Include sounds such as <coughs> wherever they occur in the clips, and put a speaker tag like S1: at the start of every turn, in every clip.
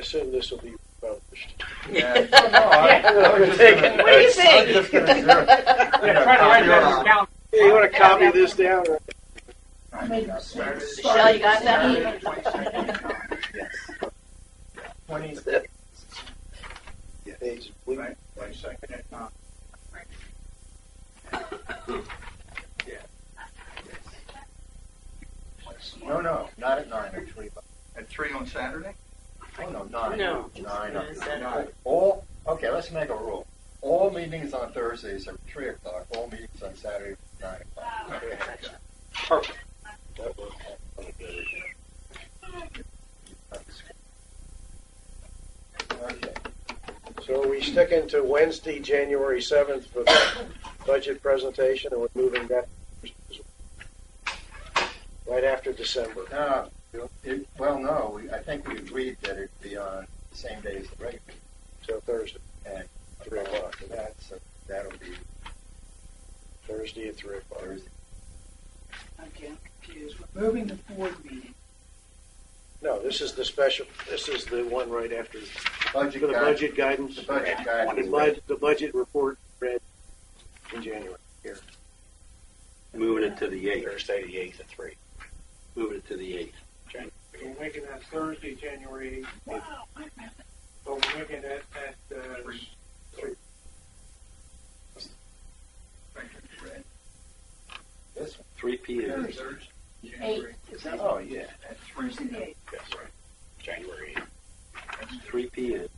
S1: assume this will be published.
S2: Yeah. <laughs> No, I- I was just gonna-
S3: What do you
S2: I was just gonna throw-
S4: <laughs>
S5: Yeah, try to write that down.
S1: Yeah, you want to copy this down? or-
S3: Michelle, you got that?
S2: Twenty,
S1: It's- we-
S2: right, one second, if not. Yeah. No, no,
S4: Not at nine, at three. but-
S2: at three on Saturday?
S4: Oh, no, nine.
S3: No.
S4: Nine.
S3: It's
S4: okay.
S2: nine.
S4: All, okay, let's make a rule. All meetings on Thursdays are three o'clock, all meetings on Saturday are nine o'clock.
S1: Perfect. That works.
S4: Okay.
S1: So are we sticking to Wednesday, January 7th for the budget presentation, and we're moving that right after December?
S4: No, it, well, no, we, I think we agreed that it'd be on the same day as the regular
S1: So Thursday,
S4: at three o'clock, and that's, that'll be
S1: Thursday at 3 o'clock.
S4: Thursday.
S5: Okay, I'm confused. We're moving the board meeting.
S1: No, this is the special, this is the one right after,
S4: Budget
S1: for the
S4: guide-
S1: budget guidance.
S4: The budget guide.
S1: The bud, the budget report read in January,
S6: Moving it to the eighth,
S1: Thursday the 8th at 3.
S6: moving it to the eighth.
S7: We're making that Thursday, January eighth. So we're making that at, uh,
S2: Thank you, Fred.
S4: This one.
S6: Three P M.
S2: Thursday, January,
S4: Oh, yeah.
S2: at three.
S1: That's right. January 8th.
S6: Three P M.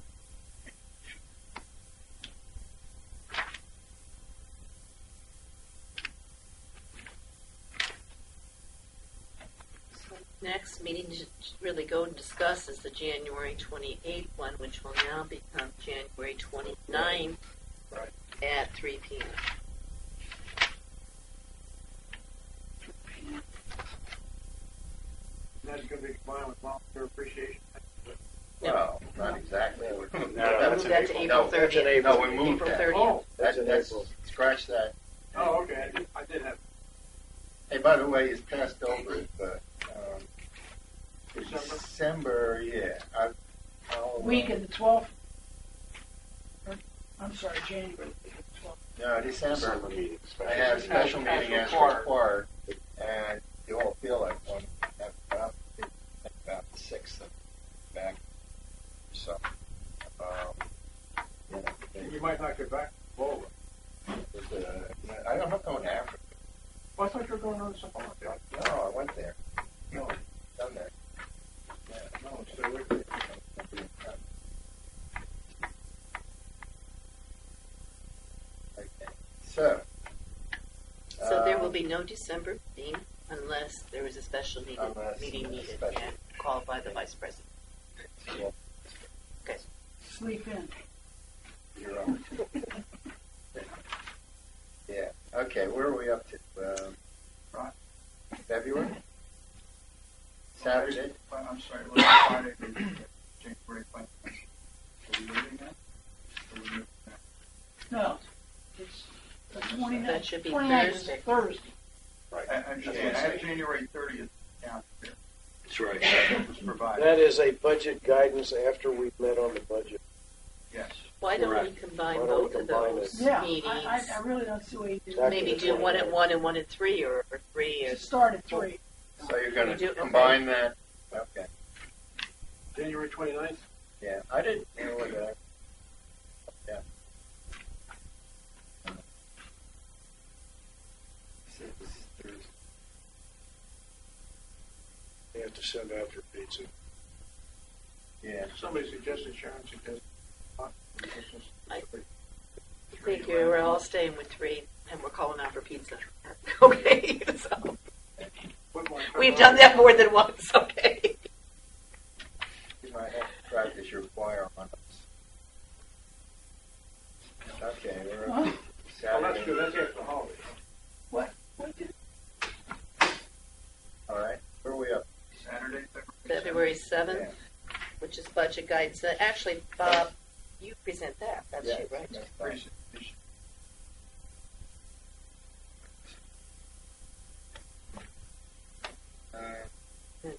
S3: Next meeting to really go and discuss is the January twenty-eighth one, which will now become January twenty-ninth
S1: Right.
S3: at three P M.
S7: that's gonna be combined with volunteer appreciation.
S3: Yeah.
S4: Well, not exactly. <laughs>
S1: that's
S3: Move that
S4: April.
S3: to April
S4: No, that's
S3: thirtieth.
S1: in April.
S4: No, we moved
S3: April
S4: that.
S3: thirtieth.
S7: Oh,
S4: That,
S1: That's in
S4: that's,
S1: April.
S4: scratch that.
S7: oh, okay, I did, I did have,
S4: Hey, by the way, it's passed over, but, um,
S7: December?
S4: December, yeah, I, I'll. uh,
S5: Week of the twelfth. I'm sorry, January twelfth.
S4: No, December,
S1: December meeting,
S4: I
S1: special
S4: have a
S1: meeting.
S4: special meeting as
S7: Special required.
S4: required, and you all feel like one, that's about, about the sixth of back, so, um, you know,
S7: you might not get back.
S4: Well, there's a- I don't uh, know if I'm going to Africa.
S7: Well, I thought you were going on something like that.
S4: No, I went there. No, done that. Yeah, no, it's still with me. Okay, So.
S3: So there will
S4: um,
S3: be no December meeting unless there is a special meeting,
S4: Unless
S3: meeting
S4: there's a
S3: needed
S4: special-
S3: and called by the vice president.
S4: um,
S5: Sleep in.
S4: You're on. Yeah, okay, where are we up to? Um, February? Saturday?
S2: I'm sorry, <coughs> it was Friday, January five. Are we moving that? Are we moving that?
S5: No, it's the
S3: That
S5: twenty-ninth.
S3: should be
S5: Twenty-ninth is
S3: Thursday.
S5: Thursday.
S2: I, I understand, I have January thirtieth down here,
S6: That's right.
S2: that was provided,
S1: That is a budget guidance after we met on the budget.
S2: yes.
S3: Why don't we
S6: Correct.
S3: combine
S1: Why don't we
S3: both of
S1: combine
S3: those
S5: Yeah, I,
S3: meetings?
S5: I, I really don't see what you do.
S1: Back to
S3: Maybe
S1: the
S3: do one at
S1: 29th.
S3: one and one at three or, or three or
S5: Start at three.
S4: So you're
S3: We
S4: going
S3: do-
S4: to
S3: okay.
S4: combine that? Okay.
S7: January twenty-ninth,
S4: Yeah, I didn't know what that. Yeah.
S1: They have to send out their pizza.
S4: Yeah.
S7: somebody suggested, Sharon suggested. uh, this is-
S3: I- Thank you. We're all staying with three, and we're calling out for pizza. <laughs> Okay, so
S7: Put my-
S3: we've done that more than once. Okay.
S4: You might have to practice your choir on us. Okay, we're
S5: Huh?
S4: up to
S7: Well, that's
S4: Saturday.
S7: good, that's after the holiday.
S5: What did-
S4: All right, where are we up?
S2: Saturday,
S3: February
S4: Yeah.
S3: seventh, which is budget guidance. Uh, Actually, Bob, you present that. That's
S4: Yeah,
S3: you, right?
S4: that's fine.
S2: Thursday.